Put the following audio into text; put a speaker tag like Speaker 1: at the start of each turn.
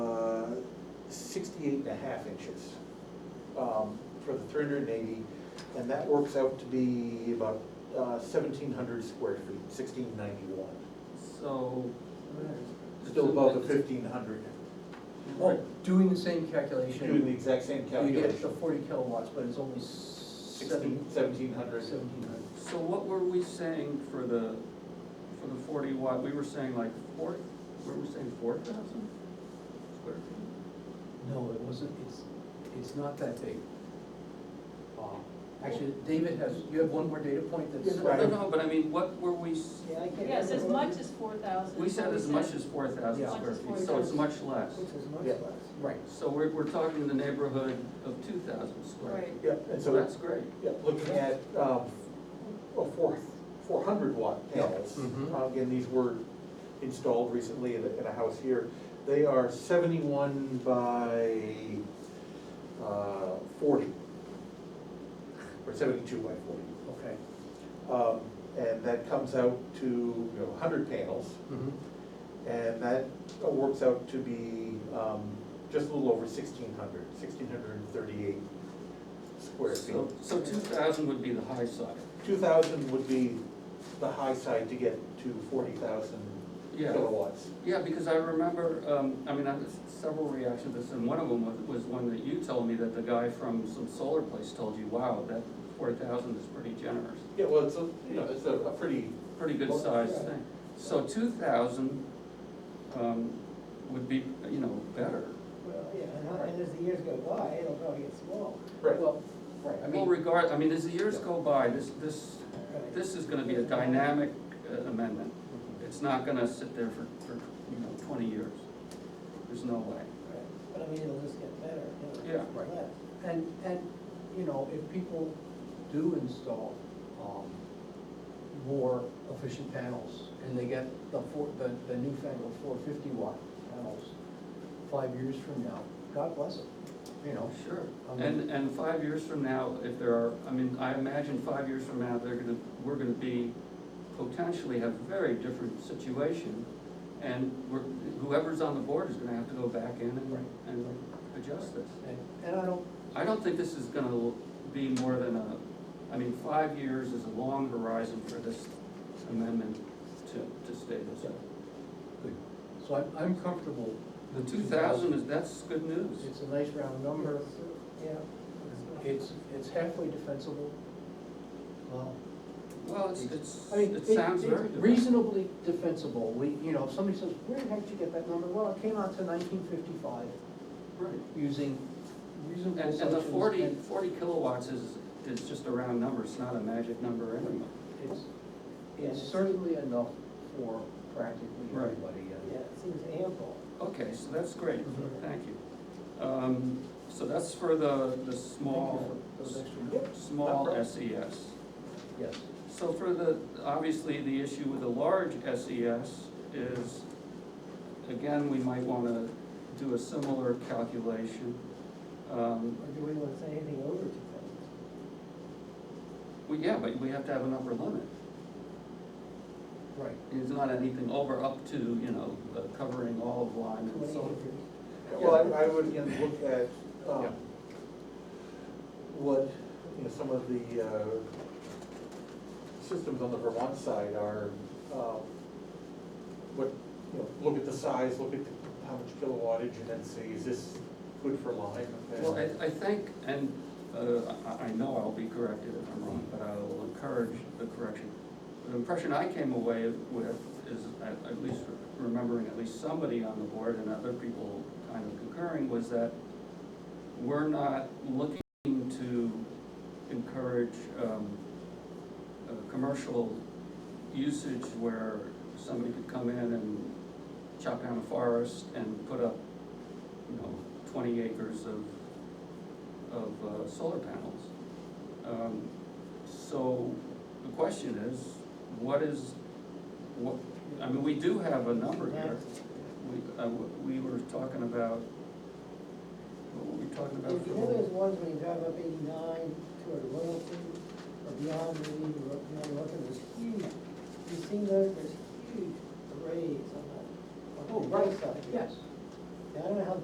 Speaker 1: Uh, sixty-eight and a half inches um, for the three hundred and eighty, and that works out to be about uh, seventeen hundred square feet, sixteen ninety-one.
Speaker 2: So.
Speaker 1: Still above the fifteen hundred,
Speaker 2: Oh, doing the same calculation.
Speaker 1: doing the exact same
Speaker 2: You get the
Speaker 1: calculation,
Speaker 2: forty kilowatts, but it's only seven.
Speaker 1: sixteen, seventeen hundred.
Speaker 2: Seventeen hundred.
Speaker 3: So what were we saying for the, for the forty watt, we were saying like four, were we saying four thousand square feet?
Speaker 2: No, it wasn't, it's, it's not that big. Um, Actually, David has, you have one more data point that's.
Speaker 1: Yeah,
Speaker 3: No, no, but I mean, what were we, s-
Speaker 4: Yes, as much as four thousand.
Speaker 3: we said as much as four thousand
Speaker 2: Yeah.
Speaker 3: square feet, so it's much less.
Speaker 1: Yeah.
Speaker 2: Right.
Speaker 3: So we're, we're talking in the neighborhood of two thousand square.
Speaker 4: Right,
Speaker 1: Yeah, and
Speaker 3: So
Speaker 1: so,
Speaker 3: that's great.
Speaker 1: yeah, looking at um, a four, four hundred watt
Speaker 2: Yeah.
Speaker 1: panels,
Speaker 2: Mhm.
Speaker 1: uh, again, these were installed recently in a, in a house here. They are seventy-one by uh, forty, or seventy-two by forty.
Speaker 2: Okay.
Speaker 1: Um, And that comes out to, you know, hundred panels, and that uh, works out to be um, just a little over 1,600, 1,638 square
Speaker 3: So,
Speaker 1: feet.
Speaker 3: so two thousand would be the high side.
Speaker 1: Two thousand would be the high side to get to forty thousand
Speaker 3: Yeah.
Speaker 1: kilowatts.
Speaker 3: Yeah, because I remember, um, I mean, I had several reactions to this, and one of them was, was one that you told me that the guy from some solar place told you, wow, that four thousand is pretty generous,
Speaker 1: Yeah, well, it's a, you know, it's a a pretty,
Speaker 3: pretty good
Speaker 1: Well,
Speaker 3: sized
Speaker 1: yeah.
Speaker 3: thing. So two thousand, um, would be, you know, better.
Speaker 5: Well, yeah, and how- and as the years go by, it'll probably get smaller.
Speaker 1: right,
Speaker 2: Well, right, I
Speaker 3: Well,
Speaker 2: mean,
Speaker 3: regard, I mean, as the years go by, this, this,
Speaker 5: Right.
Speaker 3: this is gonna be a dynamic uh, amendment.
Speaker 2: mhm.
Speaker 3: It's not gonna sit there for, for, you know, twenty years. There's no way.
Speaker 5: Right. But I mean, it'll just get better, it'll
Speaker 3: Yeah.
Speaker 5: get
Speaker 2: Right.
Speaker 5: less.
Speaker 2: and, and, you know, if people do install, um, more efficient panels, and they get the four, the, the newfangled four fifty watt panels five years from now, God bless them, you know?
Speaker 3: Sure,
Speaker 2: Um,
Speaker 3: and, and five years from now, if there are, I mean, I imagine five years from now, they're gonna, we're gonna be, potentially have a very different situation. And we're, whoever's on the board is gonna have to go back in
Speaker 2: Right.
Speaker 3: and, and adjust this.
Speaker 2: And, and I don't,
Speaker 3: I don't think this is gonna be more than a, I mean, five years is a long horizon for this amendment to, to stay this way.
Speaker 2: Good. So I'm, I'm comfortable.
Speaker 3: The
Speaker 2: with
Speaker 3: two thousand is, that's good news.
Speaker 2: It's a nice round number,
Speaker 5: Yeah.
Speaker 2: it's, it's halfway defensible. Well,
Speaker 3: Well, it's, it's,
Speaker 2: I mean,
Speaker 3: it sounds
Speaker 2: it's
Speaker 3: very good.
Speaker 2: reasonably defensible, we, you know, if somebody says, where the heck did you get that number? Well, it came out to nineteen fifty-five,
Speaker 3: Right.
Speaker 2: using
Speaker 3: And,
Speaker 2: reasonable
Speaker 3: and the
Speaker 2: assumptions.
Speaker 3: forty,
Speaker 2: and
Speaker 3: forty kilowatts is, is just a round number, it's not a magic number anyway.
Speaker 2: It's, it's certainly enough for practically uh,
Speaker 3: Right.
Speaker 2: everybody. and-
Speaker 5: Yeah, it seems ample.
Speaker 3: Okay, so that's great,
Speaker 2: Mhm.
Speaker 3: thank you. Um, so that's for the, the small,
Speaker 2: for those extra-
Speaker 3: s- small SES.
Speaker 2: Yes,
Speaker 3: So for the, obviously, the issue with the large SES is, again, we might wanna do a similar calculation. Um,
Speaker 5: Or do we want to say anything over two thousand?
Speaker 3: well, yeah, but we have to have an upper limit.
Speaker 2: right.
Speaker 3: It's not anything over up to, you know, uh, covering all of Lyme and
Speaker 5: Twenty
Speaker 3: so on.
Speaker 5: acres.
Speaker 1: Well, I, I would again look at, um, what, you know, some of the, uh, systems on the Vermont side are, um, what, you know, look at the size, look at the- how much kilowattage and then say, is this good for Lyme? And-
Speaker 3: Well, I, I think, and uh, I, I know I'll be corrected if I'm wrong, but I will encourage the correction. The impression I came away with is, at, at least remembering at least somebody on the board and other people kind of concurring, was that we're not looking to encourage, um, uh, commercial usage where somebody could come in and chop down a forest and put up, you know, twenty acres of, of uh, solar panels. Um, So the question is, what is, what, I mean, we do have a number here. We, uh, we were talking about, what were we talking about?
Speaker 5: If you
Speaker 3: for-
Speaker 5: know those ones when you drive up eighty-nine toward Royalton or beyond, maybe even Ro- beyond Royalton, there's huge, you've seen those, there's huge arrays on the, on the
Speaker 2: Oh, right,
Speaker 5: hillside.
Speaker 2: yes.
Speaker 5: Now, I don't know how